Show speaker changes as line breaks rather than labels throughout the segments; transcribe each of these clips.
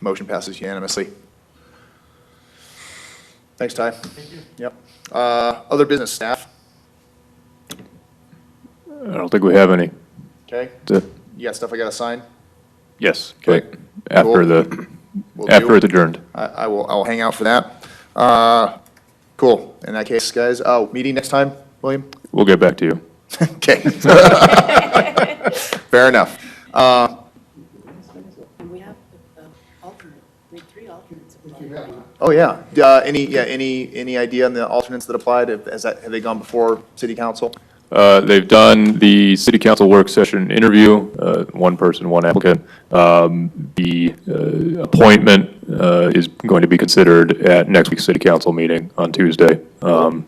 Motion passes unanimously. Thanks, Ty. Thank you. Yep. Uh, Other business staff,
I don't think we have any.
okay?
The-
You got stuff I gotta sign?
Yes.
Okay.
but After the,
Will do.
after it's adjourned.
I, I will, I'll hang out for that. Uh, Cool. In that case, guys, oh, meeting next time, William?
We'll get back to you.
Okay. Fair enough. Uh,
And we have
uh,
the the alternate, we have three alternates. that we can-
Oh, yeah. Uh, Any, yeah, any, any idea on the alternates that applied? Have- Has that, have they gone before city council?
Uh, They've done the city council work session interview, uh, one person, one applicant. Um, The uh, appointment uh, is going to be considered at next week's city council meeting on Tuesday. Um,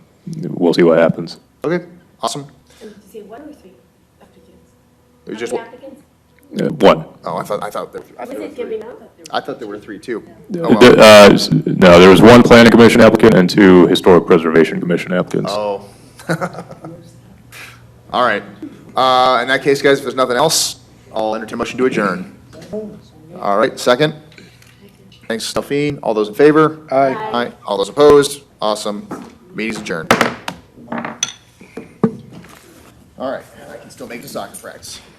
We'll see what happens.
Okay, awesome.
And you say one or three applicants?
It was just,
Three
oh,
applicants?
Uh, One.
I thought, I thought, there- I
Was it
thought there were three.
giving up?
I thought there were three, too. Oh,
Uh,
well.
uh, s- No, there was one planning commission applicant and two historic preservation commission applicants.
Oh. All right. Uh, In that case, guys, if there's nothing else, I'll entertain a motion to adjourn. All right, second. Thanks, Delphine. All those in favor? Aye. Aye. All those opposed? Awesome. Meeting's adjourned. All right, I can still make the soccer practice.